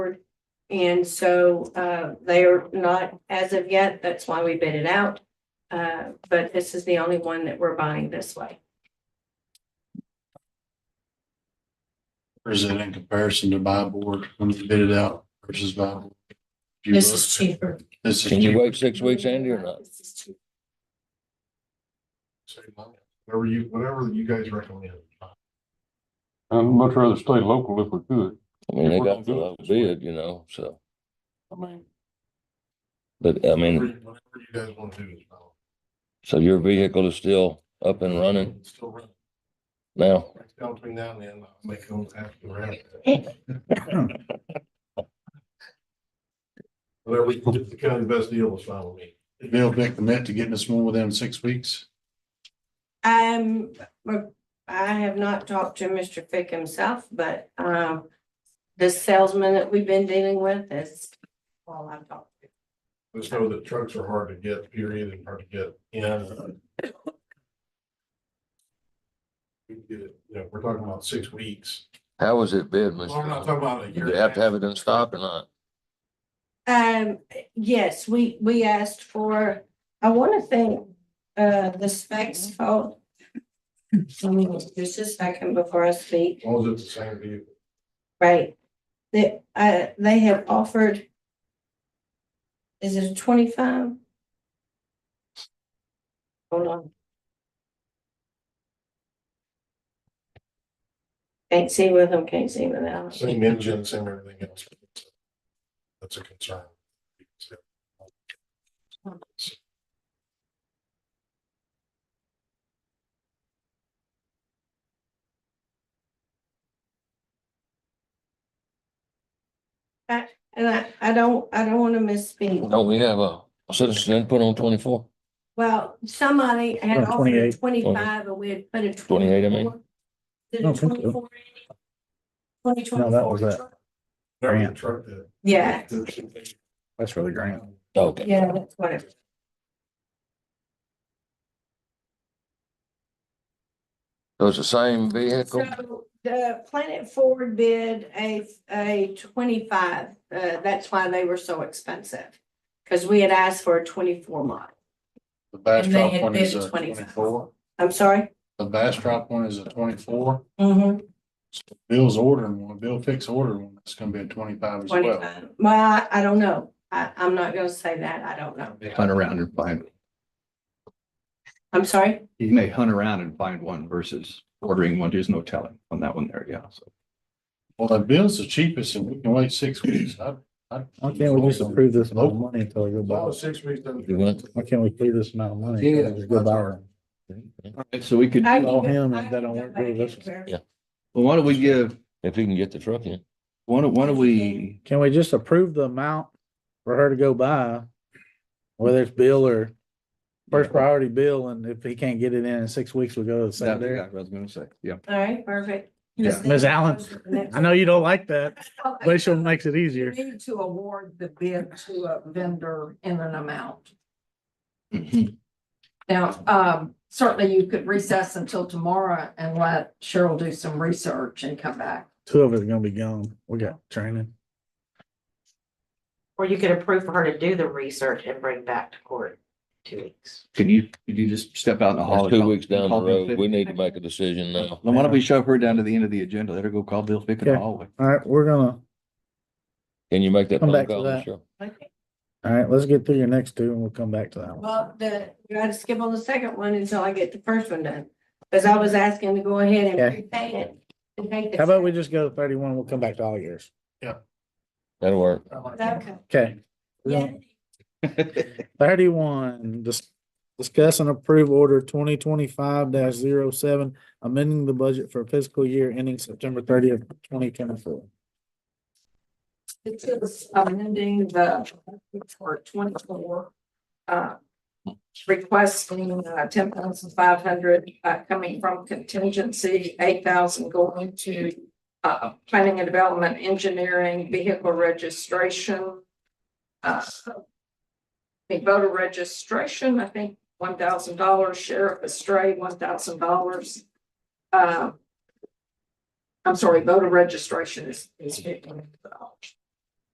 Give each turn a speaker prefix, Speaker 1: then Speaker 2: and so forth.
Speaker 1: And so uh, they are not as of yet. That's why we bid it out. Uh, But this is the only one that we're buying this way.
Speaker 2: Or is it in comparison to buy board when you bid it out versus buy? board? Do you
Speaker 3: This
Speaker 2: look-
Speaker 3: is cheaper.
Speaker 2: This is.
Speaker 4: Can you wait six weeks, Andy, or not?
Speaker 3: This is cheaper.
Speaker 2: Whatever you, whatever you guys recommend.
Speaker 5: I'd much rather stay local if we could.
Speaker 4: I mean, they
Speaker 5: We're
Speaker 4: got
Speaker 5: gonna
Speaker 4: the
Speaker 5: do it
Speaker 4: low
Speaker 5: this way.
Speaker 4: bid, you know, so,
Speaker 5: I mean.
Speaker 4: but I
Speaker 2: Whatever
Speaker 4: mean,
Speaker 2: you whatever you guys want to do. is fine.
Speaker 4: so your vehicle is still up and running
Speaker 2: It's Still running.
Speaker 4: now?
Speaker 2: Down between now and then, I'll make them have to run. Whatever we can do to kind of the best deal is fine with me. They'll pick the net to getting us one within six weeks.
Speaker 1: Um, but I have not talked to Mr. Fick himself, but um, the salesman that we've been dealing with is all I've talked to.
Speaker 2: Just know that trucks are hard to get, period, and hard to get, you know. We can get it, you know, we're talking about six weeks.
Speaker 4: How was it bid,
Speaker 2: Well,
Speaker 4: Mr.?
Speaker 2: We're not talking about a year.
Speaker 4: Did they have to have it in stock or not?
Speaker 1: Um, yes, we, we asked for, I want to thank uh, the specs for. Let me just a second before I speak.
Speaker 2: As long as it's the same vehicle.
Speaker 1: Right. That, uh, they have offered. Is it a twenty-five? Hold on. Can't see with them, can't see without.
Speaker 2: Same engine, same everything else. That's a concern.
Speaker 1: And I, I don't, I don't wanna misspeak.
Speaker 4: Don't Oh, we have a citizen input on twenty-four?
Speaker 1: Well, somebody had
Speaker 6: Uh,
Speaker 1: offered
Speaker 6: 28.
Speaker 1: twenty-five and we had put a
Speaker 4: 28, I mean.
Speaker 1: twenty-four. Did
Speaker 6: I
Speaker 1: a
Speaker 6: don't think so.
Speaker 1: twenty-four? Twenty
Speaker 6: No, that was
Speaker 1: twenty-four?
Speaker 6: that.
Speaker 2: That was the truck that-
Speaker 1: Yeah,
Speaker 6: That's really grand.
Speaker 4: Okay.
Speaker 1: yeah, that's what it.
Speaker 4: It was the same vehicle?
Speaker 1: So the Planet Ford bid a, a twenty-five, uh, that's why they were so expensive. Cause we had asked for a twenty-four model.
Speaker 2: The Bastrop
Speaker 1: had
Speaker 2: one
Speaker 1: bid
Speaker 2: is
Speaker 1: at
Speaker 2: a
Speaker 1: 25.
Speaker 2: twenty-four.
Speaker 1: I'm sorry?
Speaker 2: The Bastrop one is a twenty-four.
Speaker 1: Mm-hmm.
Speaker 2: Bill's ordering one. Bill Fix ordered one. That's gonna be a twenty-five as well.
Speaker 1: Twenty-five. Well, I, I don't know. I, I'm not gonna say that. I don't know.
Speaker 7: Hunt around and find,
Speaker 1: I'm sorry?
Speaker 7: you may hunt around and find one versus ordering one. There's no telling on that one there. Yeah. So
Speaker 2: Well, the bill's the cheapest and we can wait six weeks. I, I.
Speaker 6: Why can't we just approve this amount of money until we go buy? it?
Speaker 2: six weeks.
Speaker 4: You went?
Speaker 6: Why can't we approve this amount of money? until we just Go buy it?
Speaker 7: so we could,
Speaker 1: I can
Speaker 7: well,
Speaker 6: Call
Speaker 1: go-
Speaker 6: him
Speaker 1: I
Speaker 6: and that
Speaker 1: can
Speaker 6: don't
Speaker 1: go
Speaker 6: work
Speaker 1: back
Speaker 6: with us.
Speaker 1: and verify.
Speaker 4: Yeah.
Speaker 7: why don't we give,
Speaker 4: If you can get the truck in.
Speaker 7: why don't, why don't we,
Speaker 6: Can we just approve the amount for her to go buy? Whether it's Bill or first priority Bill, and if he can't get it in in six weeks, we'll go to the
Speaker 7: that's what
Speaker 6: secondary.
Speaker 7: I was gonna say. Yeah.
Speaker 1: All right, perfect.
Speaker 7: Yeah.
Speaker 6: Ms. Allen, I know you don't like that, but it sure makes it
Speaker 8: You
Speaker 6: easier.
Speaker 8: need to award the bid to a vendor in an amount.
Speaker 7: Mhm.
Speaker 8: Now, um, certainly you could recess until tomorrow and let Cheryl do some research and come back.
Speaker 6: Two of us are gonna be gone. We got training.
Speaker 9: Or you could approve for her to do the research and bring back to court in two weeks.
Speaker 7: Can you, could you just step out in the hall?
Speaker 4: That's
Speaker 7: and
Speaker 4: two
Speaker 7: call-
Speaker 4: weeks down the
Speaker 7: call Bill
Speaker 4: road.
Speaker 7: Fick?
Speaker 4: We need to make a decision now.
Speaker 7: Then why don't we shove her down to the end of the agenda? Let her go call Bill Fick in the
Speaker 6: Okay.
Speaker 7: hallway.
Speaker 6: All right, we're gonna,
Speaker 4: Can you make that
Speaker 6: Come
Speaker 4: phone
Speaker 6: back to
Speaker 4: call,
Speaker 6: that.
Speaker 4: Michelle?
Speaker 6: all right, let's get through your next two and we'll come back to that one.
Speaker 1: Well, the, you gotta skip on the second one until I get the first one done, cause I was asking to go ahead and
Speaker 6: Okay.
Speaker 1: prepay it. and take the-
Speaker 6: How about we just go to thirty-one? We'll come back to all yours.
Speaker 4: That'll work.
Speaker 1: Okay.
Speaker 6: Okay.
Speaker 1: Yeah.
Speaker 6: Thirty-one, dis- discuss and approve order twenty twenty-five 7 amending the budget for fiscal year ending September thirtieth, twenty twenty-four.
Speaker 8: This is amending uh, the for twenty-four. uh, Requesting uh, ten thousand five hundred uh, coming from contingency, eight thousand going to uh, planning and development, engineering, vehicle registration. uh, The voter registration, I think one thousand dollars, sheriff astray, one thousand dollars. Uh, I'm sorry, voter registration is is fifteen dollars.